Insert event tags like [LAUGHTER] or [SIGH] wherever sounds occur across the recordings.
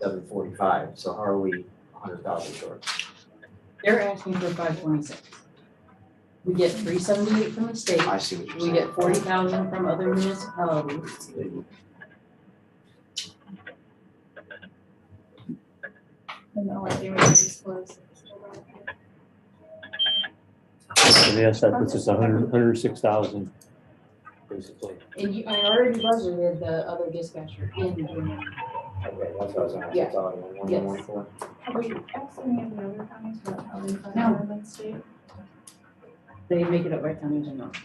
seven forty-five, so how are we hundred thousand short? They're asking for five twenty-six. We get three seventy-eight from the state, I see what you're we saying. get forty thousand from other municipalities. And all I do is close. And yes, that puts us a hundred, hundred six thousand, basically. And you, I already budgeted the other dispatcher in June. Okay, that's what I was gonna ask, Yeah. it's all in one, Yes. one, four. Have we asked any of the other counties about how they fund No. their lead state? They make it up by counties or not.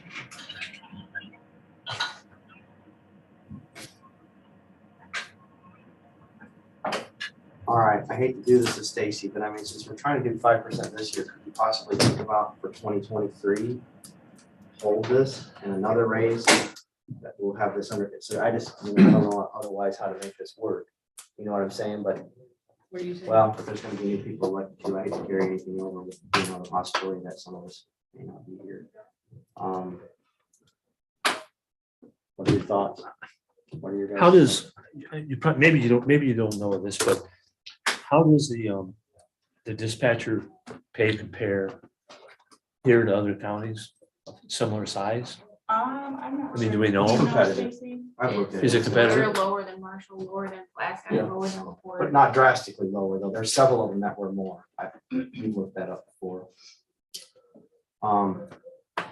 All right, I hate to do this to Stacy, but I mean, since we're trying to do five percent this year, could we possibly think about for twenty twenty-three? Hold this and another raise that we'll have this under, so I just, I mean, I don't know otherwise how to make this work. You know what I'm saying, but What do you say? Well, if there's gonna be new people like you, I hate to carry anything over with, you know, the possibility that some of us may not be here. Um. What are your thoughts? What are your guys? How does, you probably, maybe you don't, maybe you don't know this, but how does the, um, the dispatcher pay compare here to other counties of similar size? Um, I'm not I mean, sure. do we know? Competitive. Stacy? I've looked at Is it competitive? They're lower than Marshall, lower than Plaska, Yeah. lower than LaPorte. But not drastically lower, though. There's several of them that were more. I, we looked that up before. Um,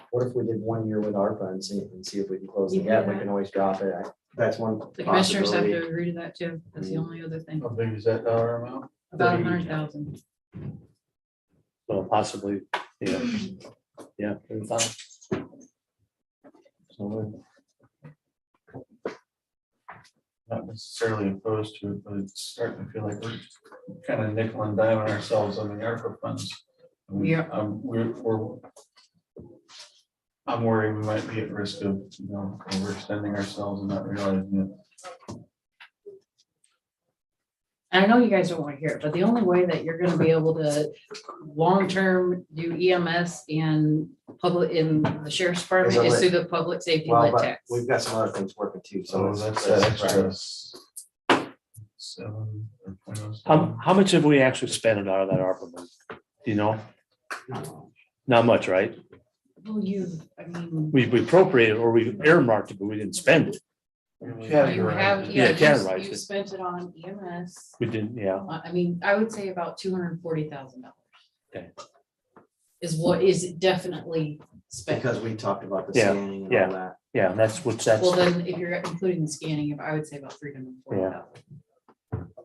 what if we did one year with ARPA and see, and see if we can close the gap? We can always drop it. I- That's one The commissioners have possibility. to agree to that too. That's the only other thing. How big is that dollar amount? About a hundred thousand. Well, possibly, yeah. Yeah. they're fine. So, uh, Not necessarily opposed to it, but it's starting to feel like we're kind of nickel and diming ourselves on the ARPA funds. We are- Um, we're, we're. I'm worried we might be at risk of, you know, overextending ourselves and not realizing And I know you guys don't want to hear it, but the only way that you're gonna be able to long-term do EMS and public, in the sheriff's department Is is it through the public safety Well, lit but tax. we've got some other things working too, it. so. it's- So Oh, that's that it's- extra. s- Seven. or point oh How, seven. how much have we actually spent out of that ARPA money? Do you know? Not much, right? Well, you, I mean, We we appropriated or we earmarked it, but we didn't spend it. you have, Categorized. Yeah, yeah, categorize you it. spent it on EMS. We didn't, yeah. I I mean, I would say about two hundred and forty thousand dollars. Okay. Is what is definitely spent. Because we talked about the Yeah, scanning and yeah. all that. Yeah, that's what that's, Well, then if you're including the scanning, I would say about three hundred and forty thousand.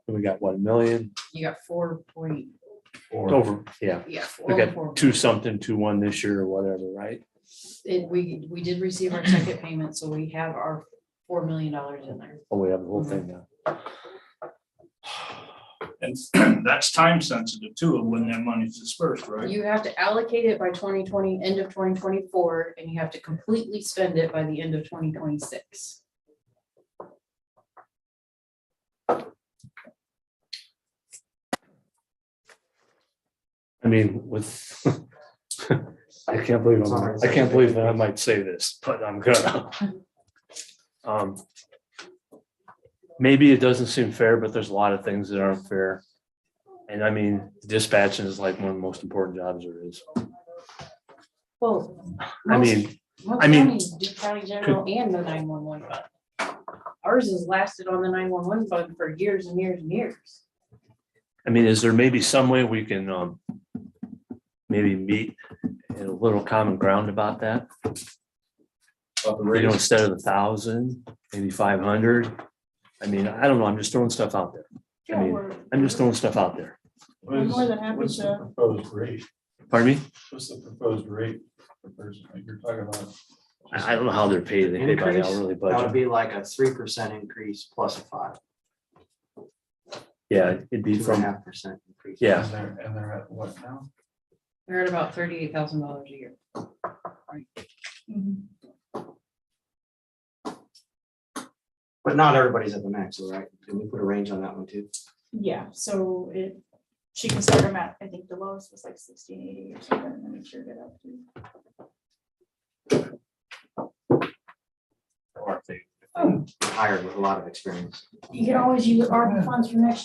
we got one million You got four point, Or- over, yeah. yeah. four- We four- got two something, two one this year or whatever, right? It, we, we did receive our second payment, so we have our four million dollars in there. Oh, we have the whole thing Mm-hmm. now. And [CLEARS THROAT] that's time sensitive too, of when that money's dispersed, right? You have to allocate it by twenty twenty, end of twenty twenty-four, and you have to completely spend it by the end of twenty twenty-six. I mean, with, [LAUGHS] I can't believe, I'm- I can't believe that I might say this, but [LAUGHS] I'm gonna. Um, Maybe it doesn't seem fair, but there's a lot of things that aren't fair. And I mean, dispatching is like one of the most important jobs there is. Well. I most- mean, most I mean, counties do County general and the nine one one fund. Ours has lasted on the nine one one fund for years and years and years. I mean, is there maybe some way we can, um, maybe meet in a little common ground about that? You know, instead of a thousand, maybe five hundred? I mean, I don't know, I'm just throwing stuff out there. I mean, I'm just throwing stuff out there. What I'm is- more than happy What's the to- proposed rate? Pardon me? What's the proposed rate per person? Like you're talking about? I, I don't know how they're paid, they pay by the Increase? hourly That would budget. be like a three percent increase plus a five, Yeah, it'd be two and a from, half percent increase. yeah, And they're, and they're at what now? They're at about thirty-eight thousand dollars a year. Mm-hmm. But not everybody's at the max, all right? Can we put a range on that one too? Yeah, so it, she can start them at, I think the lowest was like sixteen eighty or something, and then sure get up to. Hired with a lot of experience. Um. You can always use ARPA funds for next